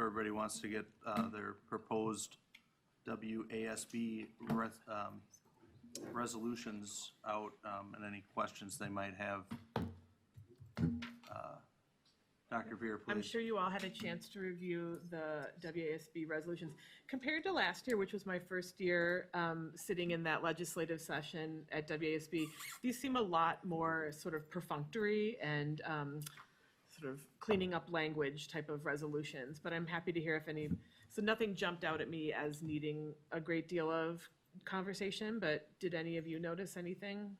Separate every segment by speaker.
Speaker 1: everybody wants to get uh, their proposed WASB res- um, resolutions out um, and any questions they might have. Uh, Dr. Veer,
Speaker 2: I'm
Speaker 1: please.
Speaker 2: sure you all had a chance to review the WASB resolutions. Compared to last year, which was my first year um, sitting in that legislative session at WASB, these seem a lot more sort of perfunctory and um, sort of cleaning up language type of resolutions. But I'm happy to hear if any, so nothing jumped out at me as needing a great deal of conversation, but did any of you notice anything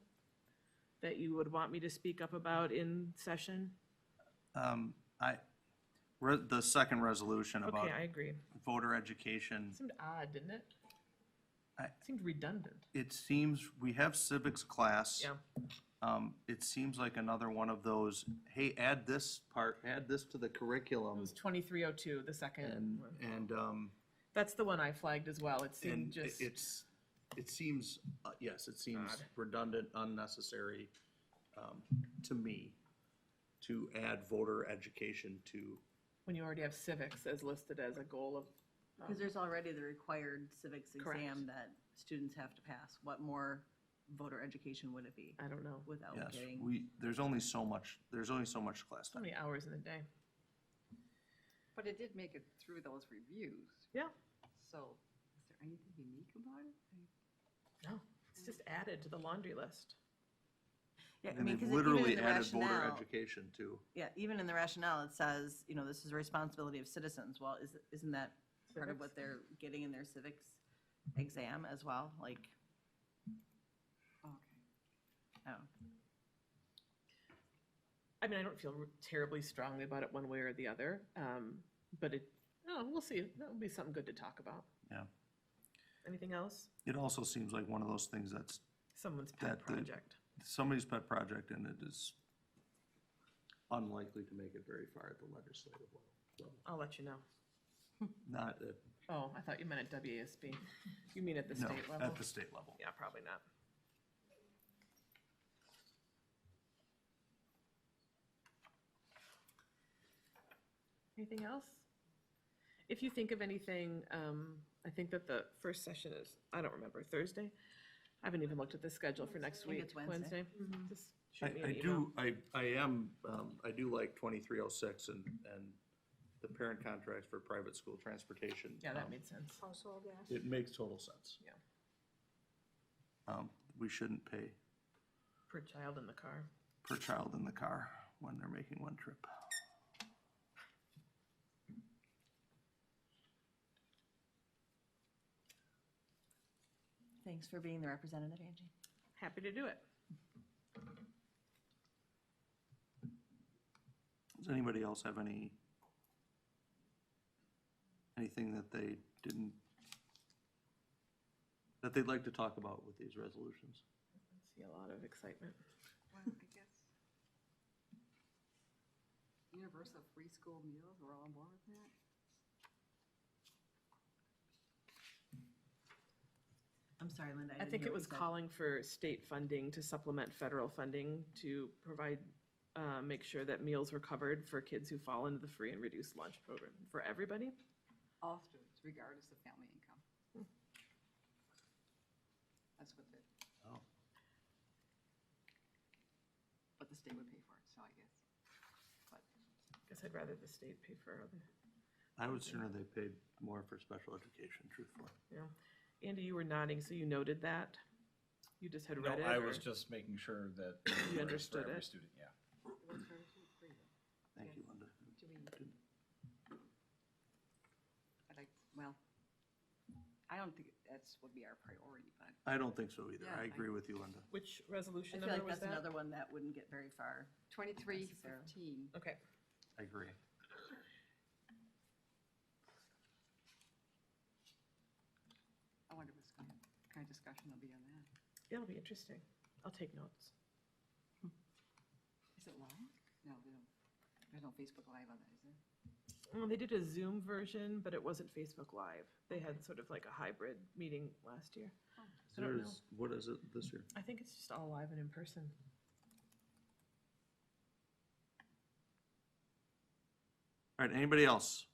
Speaker 2: that you would want me to speak up about in session?
Speaker 1: Um, I, re- the second resolution about
Speaker 2: Okay, I agree.
Speaker 1: voter education.
Speaker 2: Seemed odd, didn't it?
Speaker 1: I-
Speaker 2: Seemed redundant.
Speaker 1: It seems, we have civics class.
Speaker 2: Yeah,
Speaker 1: Um, It seems like another one of those, hey, add this part, add this to the
Speaker 2: it
Speaker 1: curriculum.
Speaker 2: was twenty-three oh two, the second
Speaker 1: And,
Speaker 2: one.
Speaker 1: and, um,
Speaker 2: That's the one I flagged as well. It seemed
Speaker 1: and
Speaker 2: just,
Speaker 1: it's, it seems, uh, yes, it seems
Speaker 2: Odd.
Speaker 1: redundant, unnecessary um, to me to add voter education to.
Speaker 2: when you already have civics as listed as a goal of. um,
Speaker 3: Because there's already the required civics
Speaker 2: Correct.
Speaker 3: exam that students have to pass. What more voter education would it be
Speaker 2: I don't know,
Speaker 3: without
Speaker 1: Yes,
Speaker 3: getting?
Speaker 1: we, there's only so much, there's only so much class
Speaker 2: so
Speaker 1: time.
Speaker 2: many hours in the day.
Speaker 4: But it did make it through those reviews,
Speaker 2: Yeah,
Speaker 4: so is there anything unique about it? I-
Speaker 2: no, it's just added to the laundry list.
Speaker 3: Yeah, I
Speaker 1: And
Speaker 3: mean,
Speaker 1: they've
Speaker 3: 'cause it- even in
Speaker 1: literally
Speaker 3: the
Speaker 1: added voter
Speaker 3: rationale,
Speaker 1: education to.
Speaker 3: yeah, even in the rationale, it says, you know, this is a responsibility of citizens. Well, is, isn't that part of
Speaker 2: Civics.
Speaker 3: what they're getting in their civics exam as well? Like,
Speaker 4: Okay.
Speaker 3: oh,
Speaker 2: I mean, I don't feel terribly strongly about it one way or the other, um, but it, no, we'll see. That'll be something good to talk about.
Speaker 1: Yeah.
Speaker 2: Anything else?
Speaker 1: It also seems like one of those things that's
Speaker 2: Someone's pet
Speaker 1: That the-
Speaker 2: project.
Speaker 1: somebody's pet project and it is unlikely to make it very far at the legislative level. So,
Speaker 2: I'll let you know.
Speaker 1: Not at,
Speaker 2: Oh, I thought you meant at WASB. You mean at the
Speaker 1: no,
Speaker 2: state level?
Speaker 1: at the state level.
Speaker 2: Yeah, probably not. Anything else? If you think of anything, um, I think that the first session is, I don't remember, Thursday? I haven't even looked at the schedule for next
Speaker 3: think
Speaker 2: week.
Speaker 3: it's Wednesday. Mm-hmm.
Speaker 2: Just
Speaker 1: I,
Speaker 2: shoot me
Speaker 1: I
Speaker 2: an email.
Speaker 1: do, I, I am, um, I do like twenty-three oh six and, and the parent contracts for private school transportation.
Speaker 2: Yeah, that
Speaker 1: um,
Speaker 2: made sense.
Speaker 3: Oh.
Speaker 5: household gas.
Speaker 1: It makes total sense.
Speaker 2: Yeah.
Speaker 1: Um, we shouldn't pay
Speaker 2: Per child in the car.
Speaker 1: per child in the car when they're making one trip.
Speaker 3: thanks for being the representative, Angie.
Speaker 2: Happy to do it.
Speaker 1: Does anybody else have any, anything that they didn't, that they'd like to talk about with these resolutions?
Speaker 2: See a lot of excitement.
Speaker 4: Well, I guess. Universal free school meals, we're all on board with that?
Speaker 3: I'm sorry, Linda.
Speaker 2: I
Speaker 3: didn't
Speaker 2: think
Speaker 3: hear
Speaker 2: it
Speaker 3: what
Speaker 2: was
Speaker 3: you said.
Speaker 2: calling for state funding to supplement federal funding to provide, uh, make sure that meals were covered for kids who fall into the free and reduced lunch program for everybody.
Speaker 4: All students, regardless of family income. That's what the,
Speaker 1: Oh.
Speaker 4: but the state would pay for it, so I guess. But
Speaker 2: Guess I'd rather the state pay for other,
Speaker 1: I would sooner they paid more for special education, truthfully.
Speaker 2: you know. Andy, you were nodding, so you noted that? You just had
Speaker 6: No,
Speaker 2: read it?
Speaker 6: I
Speaker 2: or-
Speaker 6: was just making sure that.
Speaker 2: You
Speaker 6: for
Speaker 2: understood
Speaker 6: every
Speaker 2: it?
Speaker 6: Student, yeah.
Speaker 4: it was very free though.
Speaker 1: Thank you, Linda.
Speaker 4: Do we, I'd like, well, I don't think that's would be our priority, but
Speaker 1: I don't think so either.
Speaker 4: Yeah,
Speaker 1: I
Speaker 4: I-
Speaker 1: agree with you, Linda.
Speaker 2: Which resolution
Speaker 3: I feel
Speaker 2: number
Speaker 3: like
Speaker 2: was
Speaker 3: that's
Speaker 2: that?
Speaker 3: another one that wouldn't get very far.
Speaker 4: twenty-three
Speaker 3: Sarah.
Speaker 4: fifteen.
Speaker 2: Okay,
Speaker 1: I agree.
Speaker 4: I wonder what's going, kind of discussion there'll be on that.
Speaker 2: it'll be interesting. I'll take notes.
Speaker 4: Is it live? No, they don't, there's no Facebook Live on that, is there?
Speaker 2: Well, they did a Zoom version, but it wasn't Facebook Live. They had sort of like a hybrid meeting last year. I don't
Speaker 1: There's, what is it this year?
Speaker 2: I think it's just all live and in person.
Speaker 1: All right, anybody else?